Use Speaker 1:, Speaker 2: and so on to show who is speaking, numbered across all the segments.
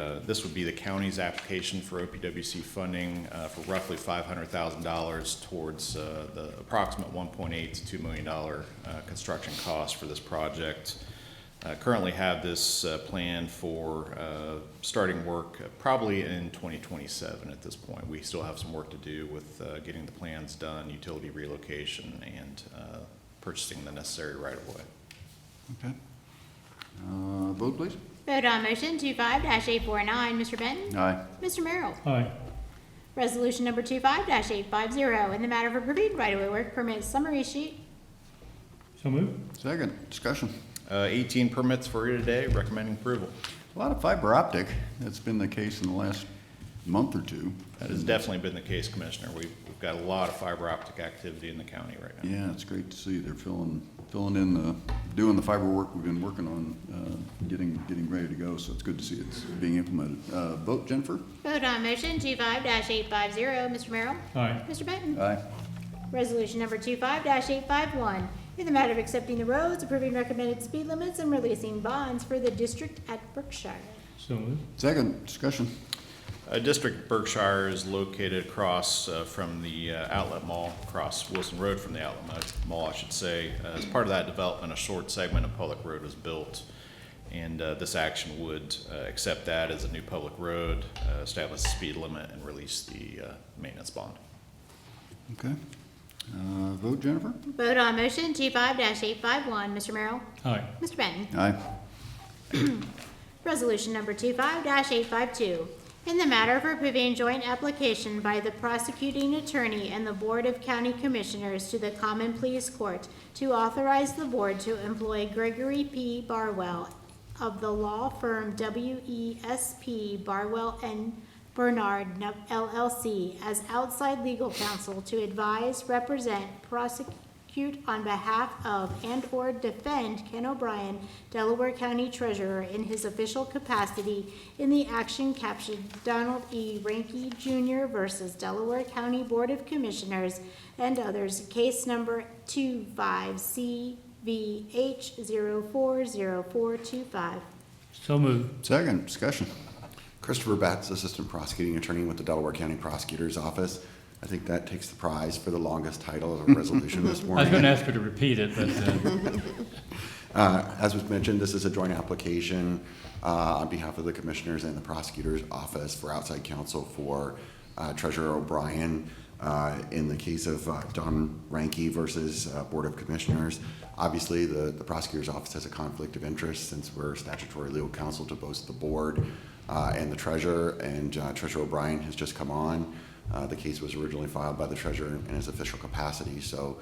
Speaker 1: uh, This would be the county's application for OPWC funding uh, for roughly $500,000 towards uh, the approximate $1.8 to $2 million uh, construction cost for this project. Uh, Currently have this uh, plan for uh, starting work probably in 2027 at this point. We still have some work to do with uh, getting the plans done, utility relocation, and uh, purchasing the necessary right-of-way.
Speaker 2: Okay. Uh, Vote, please.
Speaker 3: Vote on motion two five dash eight four nine, Mr. Benton?
Speaker 2: Aye.
Speaker 3: Mr. Merrill?
Speaker 4: aye,
Speaker 3: Resolution number two five dash eight five zero, in the matter of approving right-of-way work permit summary sheet.
Speaker 4: so move,
Speaker 2: Second, discussion.
Speaker 1: Uh, 18 permits for you today, recommending approval.
Speaker 2: A lot of fiber optic, that's been the case in the last month or two.
Speaker 1: That has definitely been the case, Commissioner. We've we've got a lot of fiber optic activity in the county right now.
Speaker 2: Yeah, it's great to see they're filling, filling in the, doing the fiber work we've been working on, uh, getting, getting ready to go, so it's good to see it's being implemented. Uh, Vote, Jennifer?
Speaker 3: Vote on motion two five dash eight five zero, Mr. Merrill?
Speaker 4: aye,
Speaker 3: Mr. Benton?
Speaker 2: Aye.
Speaker 3: Resolution number two five dash eight five one, in the matter of accepting the roads, approving recommended speed limits, and releasing bonds for the district at Berkshire.
Speaker 4: so move,
Speaker 2: Second, discussion.
Speaker 1: Uh, District Berkshire is located across uh, from the uh, Outlet Mall, across Wilson Road from the Outlet Mo- Mall, I should say. Uh, As part of that development, a short segment of public road was built, and uh, this action would uh, accept that as a new public road, uh, establish a speed limit, and release the uh, maintenance bond.
Speaker 2: Okay. Uh, Vote, Jennifer?
Speaker 3: Vote on motion two five dash eight five one, Mr. Merrill?
Speaker 4: aye,
Speaker 3: Mr. Benton?
Speaker 2: Aye.
Speaker 3: Resolution number 25-852, in the matter of approving joint application by the prosecuting attorney and the Board of County Commissioners to the Common Pleas Court to authorize the board to employ Gregory P. Barwell of the law firm WESP Barwell and Bernard N- LLC as outside legal counsel to advise, represent, prosecute on behalf of and/or defend Ken O'Brien, Delaware County Treasurer, in his official capacity in the action captioned Donald E. Ranky Jr. versus Delaware County Board of Commissioners and others, case number 25CVH040425.
Speaker 4: so move,
Speaker 2: Second, discussion.
Speaker 5: Christopher Betts, Assistant Prosecuting Attorney with the Delaware County Prosecutor's Office. I think that takes the prize for the longest title of a resolution this
Speaker 4: I was gonna
Speaker 5: morning.
Speaker 4: ask her to repeat it, but, uh,
Speaker 5: Uh, As was mentioned, this is a joint application uh, on behalf of the Commissioners and the Prosecutor's Office for outside counsel for uh, Treasurer O'Brien uh, in the case of uh, Don Ranky versus uh, Board of Commissioners. Obviously, the the Prosecutor's Office has a conflict of interest since we're statutory legal counsel to both the Board uh, and the treasurer, and uh, Treasurer O'Brien has just come on. Uh, The case was originally filed by the treasurer in his official capacity, so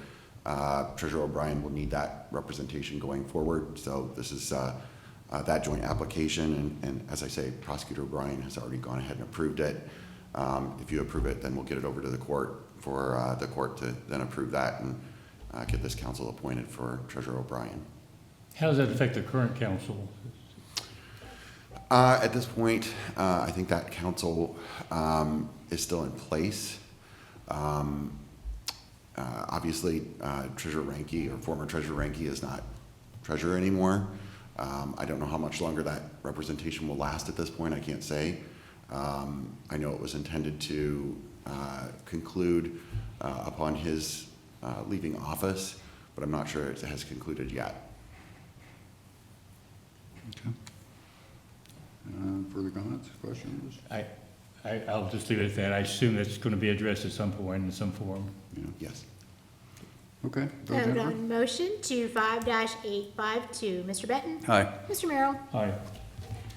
Speaker 5: uh, Treasurer O'Brien will need that representation going forward. So this is uh, uh, that joint application, and- and as I say, Prosecutor O'Brien has already gone ahead and approved it. Um, If you approve it, then we'll get it over to the court for uh, the court to then approve that and uh, get this counsel appointed for Treasurer O'Brien.
Speaker 4: how does that affect the current council?
Speaker 5: Uh, At this point, uh, I think that council um, is still in place. Um, uh, Obviously, uh, Treasurer Ranky, or former Treasurer Ranky, is not treasurer anymore. Um, I don't know how much longer that representation will last at this point, I can't say. Um, I know it was intended to uh, conclude uh, upon his uh, leaving office, but I'm not sure it has concluded yet.
Speaker 2: Okay. Uh, Further comments, questions?
Speaker 4: I, I, I'll just leave it at that, I assume that's gonna be addressed at some point in some form.
Speaker 2: Yeah.
Speaker 5: Yes.
Speaker 2: Okay. Vote,
Speaker 3: Vote
Speaker 2: Jennifer?
Speaker 3: on motion 25-852, Mr. Benton?
Speaker 2: Aye.
Speaker 3: Mr. Merrill?
Speaker 4: Aye,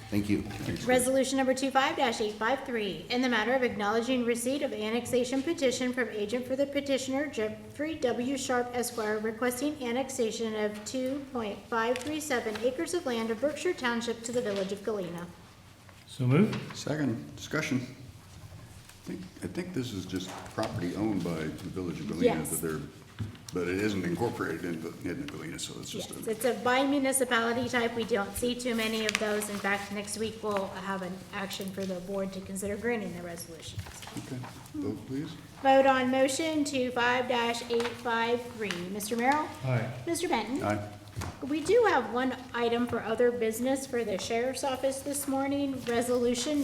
Speaker 5: Thank you.
Speaker 3: Resolution number 25-853, in the matter of acknowledging receipt of annexation petition from agent for the petitioner Jeffrey W. Sharp Esquire requesting annexation of 2.537 acres of land of Berkshire Township to the village of Galena.
Speaker 4: so move,
Speaker 2: Second, discussion. I think, I think this is just property owned by the village of Galena
Speaker 3: Yes.
Speaker 2: that they're, but it isn't incorporated into, into Galena, so it's
Speaker 3: Yes,
Speaker 2: just a,
Speaker 3: it's a by municipality type, we don't see too many of those. In fact, next week we'll have an action for the board to consider granting the resolutions.
Speaker 2: okay, vote please.
Speaker 3: Vote on motion 25-853, Mr. Merrill?
Speaker 4: aye,
Speaker 3: Mr. Benton?
Speaker 2: Aye.
Speaker 3: We do have one item for other business for the sheriff's office this morning, resolution